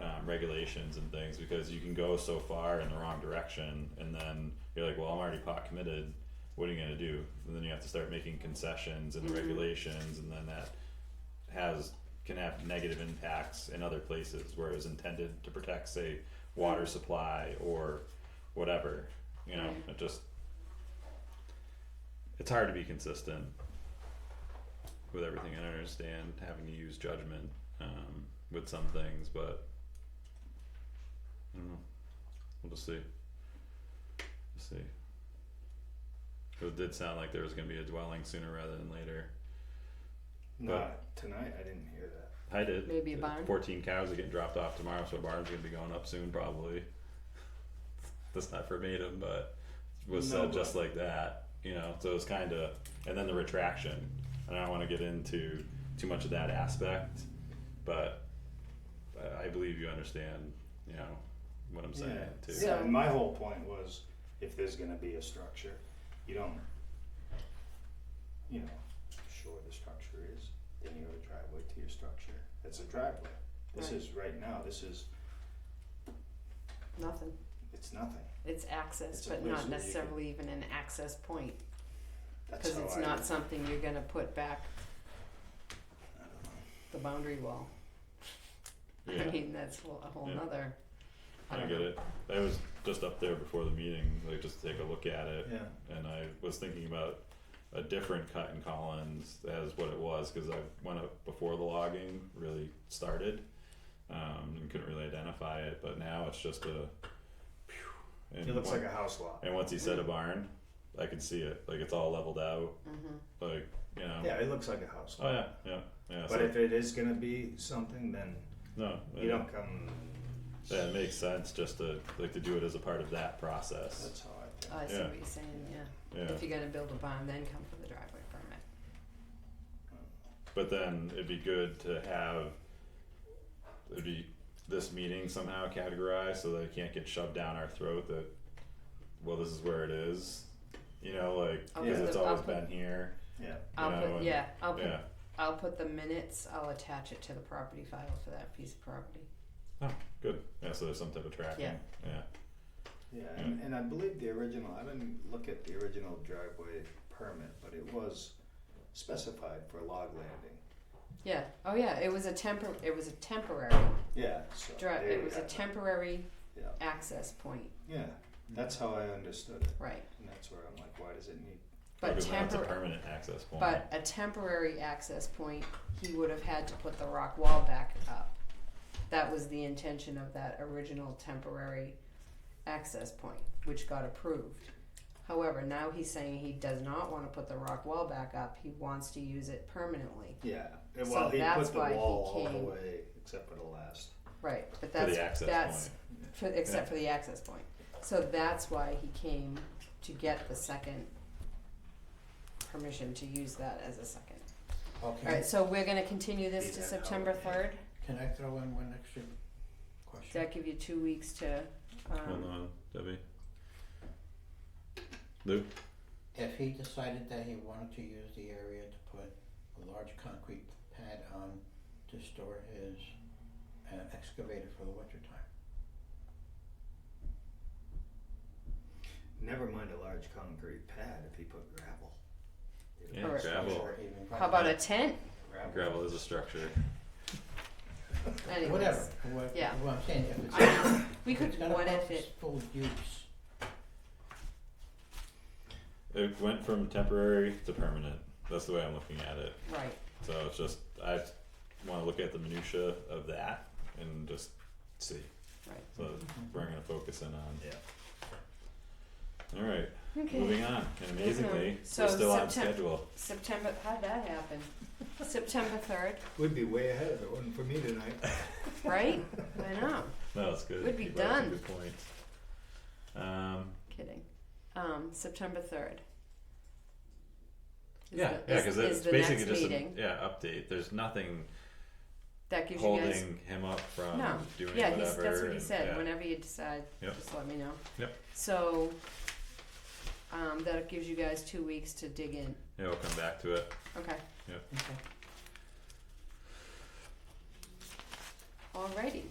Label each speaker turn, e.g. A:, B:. A: um, regulations and things because you can go so far in the wrong direction and then you're like, well, I'm already pot committed. What are you gonna do? And then you have to start making concessions and the regulations, and then that has can have negative impacts in other places where it was intended to protect, say, water supply or whatever. You know, it just it's hard to be consistent with everything. I don't understand having to use judgment um, with some things, but I don't know. We'll just see. We'll see. 'Cause It did sound like there was going to be a dwelling sooner rather than later.
B: Not tonight. I didn't hear that.
A: I did.
C: Maybe a barn?
A: Fourteen cows are getting dropped off tomorrow, so a barn's gonna be going up soon probably. That's not verbatim, but it was
B: No,
A: said just
B: but-
A: like that, you know, so it's kinda, and then the retraction. And I don't wanna get into too much of that aspect, but I- I believe you understand, you know, what I'm saying too.
B: Yeah.
C: So-
B: yeah. My whole point was, if there's gonna be a structure, you don't, you know, sure the structure is, then you have a driveway to your structure. It's a driveway. This
C: Right.
B: is right now. This is
C: Nothing.
B: it's nothing.
C: It's access,
B: It's a
C: but
B: place that
C: not
B: you
C: necessarily even an access point,
B: That's
C: cause
B: how
C: it's
B: I.
C: not something you're gonna put back
B: I don't know.
C: the boundary wall. I
A: Yeah.
C: mean, that's whole- a whole
A: Yeah.
C: nother.
A: I
C: don't
A: get
C: know.
A: it. I was just up there before the meeting, like just to take a look at it.
B: Yeah.
A: And I was thinking about a different cut in Collins as what it was, cause I went up before the logging really started. Um, and couldn't really identify it, but now it's just a.
B: It looks like a house lot.
A: And once he said a barn, I could see it, like it's all leveled out,
C: Mhm.
A: like, you know.
B: Yeah, Uh, it looks like a house lot.
A: Oh, yeah, yeah, yeah, so,
B: But if it is gonna be something, then
A: no,
B: you
A: it,
B: don't come.
A: yeah, it makes sense just to, like, to do it as a part of that process,
B: That's how I think.
C: Oh, I see
A: Yeah.
C: what you're saying, yeah.
A: yeah.
C: If you're gonna build a barn, then come for the driveway permit.
A: But then it'd be good to have it'd be this meeting somehow categorized so that it can't get shoved down our throat that well this is where it is. You know, like
C: I'll
A: because
C: put
A: it's
C: the- I'll
A: always
C: put-
A: been here.
B: Yeah.
C: I'll
A: Yeah,
C: put,
A: and-
C: yeah, I'll put,
A: Yeah.
C: I'll put the minutes, I'll attach it to the property file for that piece of property.
A: Good. Yeah, so there's some type of tracking.
C: Yeah.
A: Yeah.
B: Yeah, and, and I believe the original, I didn't look at the original driveway permit, but it was specified for log landing.
C: Yeah, oh yeah, it was a tempor, it was a temporary
B: Yeah, so.
C: dri-
B: there
C: it
B: you
C: was a
B: have it.
C: temporary
B: Yeah.
C: access point,
B: Yeah, that's how I understood it,
C: right,
B: and that's where I'm like, why does it need,
C: but
A: because now it's a
C: temporary.
A: permanent access point.
C: But a temporary access point, he would have had to put the rock wall back up. That was the intention of that original temporary access point, which got approved. However, now he's saying he does not wanna put the rock wall back up, he wants to use it permanently.
B: yeah,
C: So
B: well, he
C: that's
B: put the
C: why he
B: wall all the
C: came-
B: way, except for the last.
C: Right, but
A: for
C: that's,
A: the access
C: that's,
A: point.
C: for, except for the access point. So that's why he came to get the second permission to use that as a second. Alright, so we're gonna continue this
B: Leave
C: to
B: that out.
C: September third?
D: Can I throw in one extra question?
C: Does that give you two weeks to,
A: Hold
C: um,
A: on, Debbie.
D: If he decided that he wanted to use the area to put a large concrete pad on to store his uh, excavator for the winter time.
B: Never mind a large concrete pad if he put gravel.
A: Yeah,
C: Alright.
A: gravel.
D: Or even
C: how about a tent?
A: Gravel is a structure.
C: Anyways,
D: Whatever, what,
C: Yeah.
D: what I'm saying, if it's,
C: I know. We
D: if
C: could,
D: it's got a
C: what if it,
D: purposeful use,
A: It went from temporary to permanent. That's the way I'm looking at it.
C: right,
A: So it's just I want to look at the minutia of that and just see.
C: Right.
A: So that's what we're gonna focus in on.
B: Yeah.
A: All right,
C: okay,
A: moving on. And amazingly,
C: So
A: we're still on
C: Septem-
A: schedule.
C: September, how'd that happen? September third,
B: We'd be way ahead of it, wasn't for me tonight.
C: right? I know,
A: No, it's good.
C: We'd be
A: You brought up a
C: done.
A: Good point. Um,
C: kidding, um, September third.
A: yeah, yeah, because it's basically just
C: Is the next meeting,
A: a yeah update. There's nothing
C: that gives you guys,
A: holding him up from
C: No.
A: doing
C: yeah,
A: whatever.
C: he's, that's what he
A: and-
C: said,
A: yeah.
C: whenever you decide,
A: Yep.
C: just let me know.
A: Yep.
C: So, um, that gives you guys two weeks to dig in,
A: Yeah, we'll come back to it.
C: okay,
D: okay,
C: alrighty,